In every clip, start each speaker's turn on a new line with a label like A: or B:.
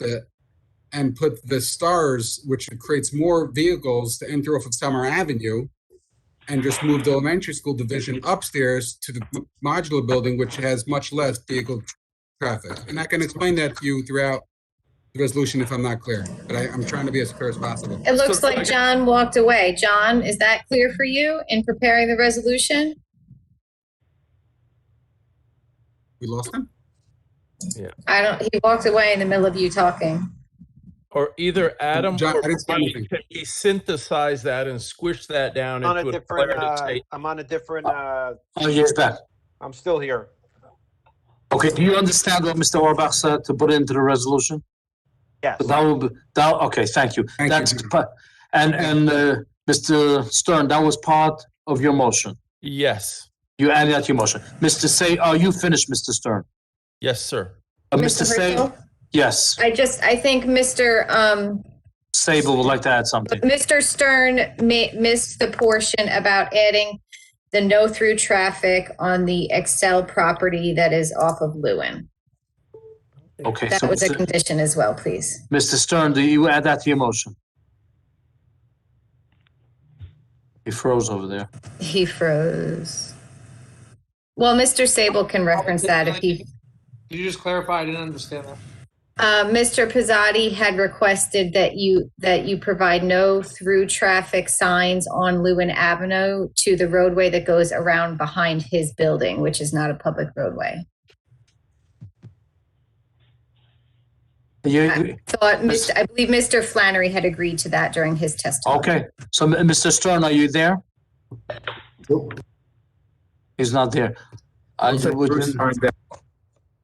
A: the and put the stars, which creates more vehicles to enter off of Summer Avenue, and just move the elementary school division upstairs to the m- modular building, which has much less vehicle traffic. And I can explain that to you throughout the resolution if I'm not clear, but I, I'm trying to be as clear as possible.
B: It looks like John walked away. John, is that clear for you in preparing the resolution?
A: We lost him?
B: I don't, he walked away in the middle of you talking.
C: Or either Adam
A: John,
C: or
A: I didn't see
C: Mike,
A: anything.
C: can we synthesize that and squish that down
D: on a
C: into a
D: different,
C: declarative
D: uh,
C: statement?
D: I'm on a different, uh,
E: Oh, yes, back.
D: I'm still here.
E: Okay, do you understand what Mr. Orbach said to put into the resolution?
D: Yes.
E: That will, be that, okay, thank you.
A: Thank you.
E: That's, pa- and, and, uh, Mr. Stern, that was part of your motion.
C: Yes,
E: You added that to your motion. Mr. Say, are you finished, Mr. Stern?
C: yes, sir.
E: Uh, Mr. Say,
B: Hertel?
E: yes,
B: I just, I think Mr. um,
E: Sable would like to add something.
B: Mr. Stern mi- missed the portion about adding the no through traffic on the Excel property that is off of Lewin.
E: Okay,
B: That
E: so
B: was a
E: Mr.
B: condition as well, please.
E: Mr. Stern, do you add that to your motion? He froze over there.
B: He froze. Well, Mr. Sable can reference that if he,
F: Could you just clarify? I didn't understand that.
B: uh, Mr. Pizzotti had requested that you, that you provide no through traffic signs on Lewin Avenue to the roadway that goes around behind his building, which is not a public roadway.
E: You,
B: Thought,
E: Mis-
B: Mr. I believe Mr. Flannery had agreed to that during his testimony.
E: Okay, so M- Mr. Stern, are you there? He's not there. I would-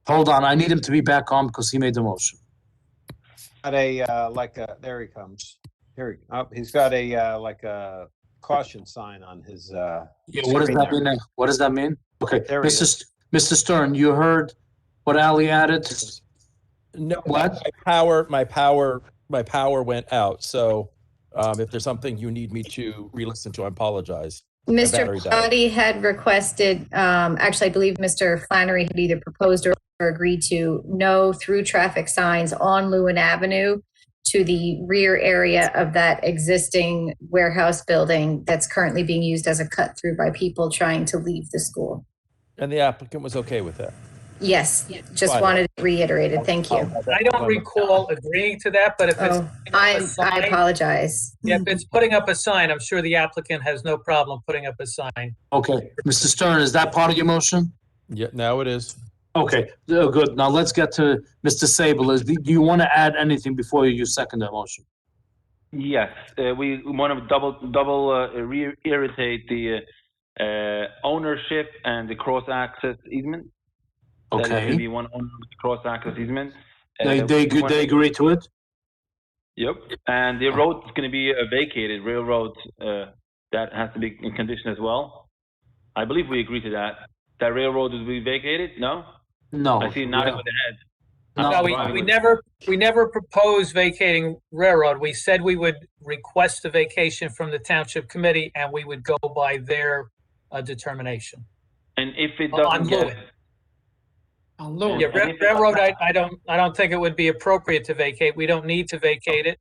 E: Hold on, I need him to be back on because he made the motion.
D: Got a, uh, like a, there he comes. Here, he- oh, he's got a, uh, like a caution sign on his, uh,
E: What does that mean? now? What does that mean? Okay,
D: There he
E: Mr. St- Mr. Stern, you heard what Ali added?
C: No, my
E: What?
C: power, my power, my power went out. So um, if there's something you need me to re-listen to, I apologize.
B: Mr.
C: battery died.
B: Pizzotti had requested, um, actually, I believe Mr. Flannery had either proposed or or agreed to no through traffic signs on Lewin Avenue to the rear area of that existing warehouse building that's currently being used as a cut through by people trying to leave the school.
C: And the applicant was okay with that.
B: Yes, just
C: Fine.
B: wanted it reiterated. Thank you.
F: I don't recall agreeing to that, but if it's,
B: Oh, I, I apologize.
F: if it's putting up a sign, I'm sure the applicant has no problem putting up a sign.
E: Okay, Mr. Stern, is that part of your motion?
C: Yeah, now it is.
E: Okay, uh, good. Now let's get to Mr. Sable. Is, do you want to add anything before you second that motion?
G: Yes, uh, we want to double double uh, re- irritate the uh, uh, ownership and the cross access easement. That
E: Okay,
G: should be one owner with the cross access easement. Uh,
E: they, they,
G: we
E: ag-
G: wanna-
E: they agree to it?
G: Yep, and the road is going to be uh, vacated. Railroad uh, that has to be in condition as well. I believe we agree to that. That railroad will be vacated. No,
E: No.
G: I see nodding
E: Yeah.
G: with the head.
E: No,
F: No, we,
G: I
F: we
G: would-
F: never, we never proposed vacating railroad. We said we would request a vacation from the township committee and we would go by their uh, determination.
G: And if it
F: Oh, on
G: doesn't get,
F: Lewis. Yeah,
G: And
F: ra-
G: if it-
F: railroad, I, I don't, I don't think it would be appropriate to vacate. We don't need to vacate it.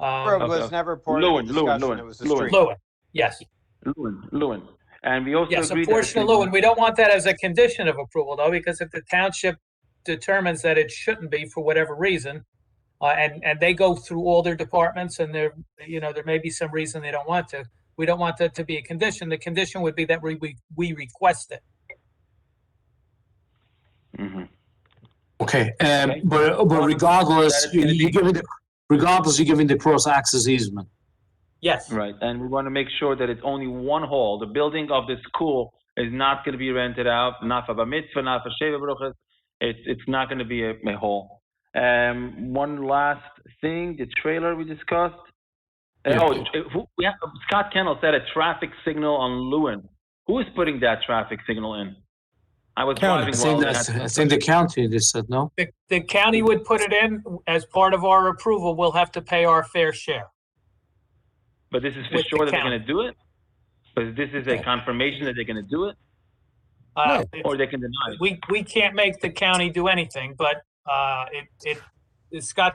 D: road
F: Um,
D: was
G: okay.
D: never part of
G: Lewin,
D: the
G: Lewin,
D: discussion.
G: Lewin,
D: It was a
G: Lewin.
D: street.
F: Lewin, yes.
G: Lewin, Lewin, and we also
F: Yes,
G: agree
F: a portion of Lewin. We don't want that as a condition of approval though, because if the township determines that it shouldn't be for whatever reason, uh, and, and they go through all their departments and there, you know, there may be some reason they don't want to. We don't want that to be a condition. The condition would be that we, we, we request it.
G: hmm
E: Okay, um,
G: Okay.
E: but, but regardless,
G: That is
E: you-
G: gonna
E: you're
G: be-
E: giving, the- regardless, you're giving the cross access easement.
F: Yes.
G: Right, and we want to make sure that it's only one hall. The building of the school is not going to be rented out, not for bar mitzvah, not for sheva bruchas. It's it's not going to be a, a hall. Um, one last thing, the trailer we discussed. Uh,
E: Yeah.
G: oh, uh, who, we have, Scott Kendall said a traffic signal on Lewin. Who is putting that traffic signal in? I
C: County.
E: I
G: was driving
E: think
G: while
E: that's,
G: that-
E: I think the county, they said, no?
F: The, the county would put it in as part of our approval. We'll have to pay our fair share.
G: but this is for
F: with the
G: sure that they're
F: county.
G: going to do it. But this is a confirmation that they're going to do it,
F: Uh,
G: or they can deny it.
F: we, we can't make the county do anything, but, uh, it, it, Scott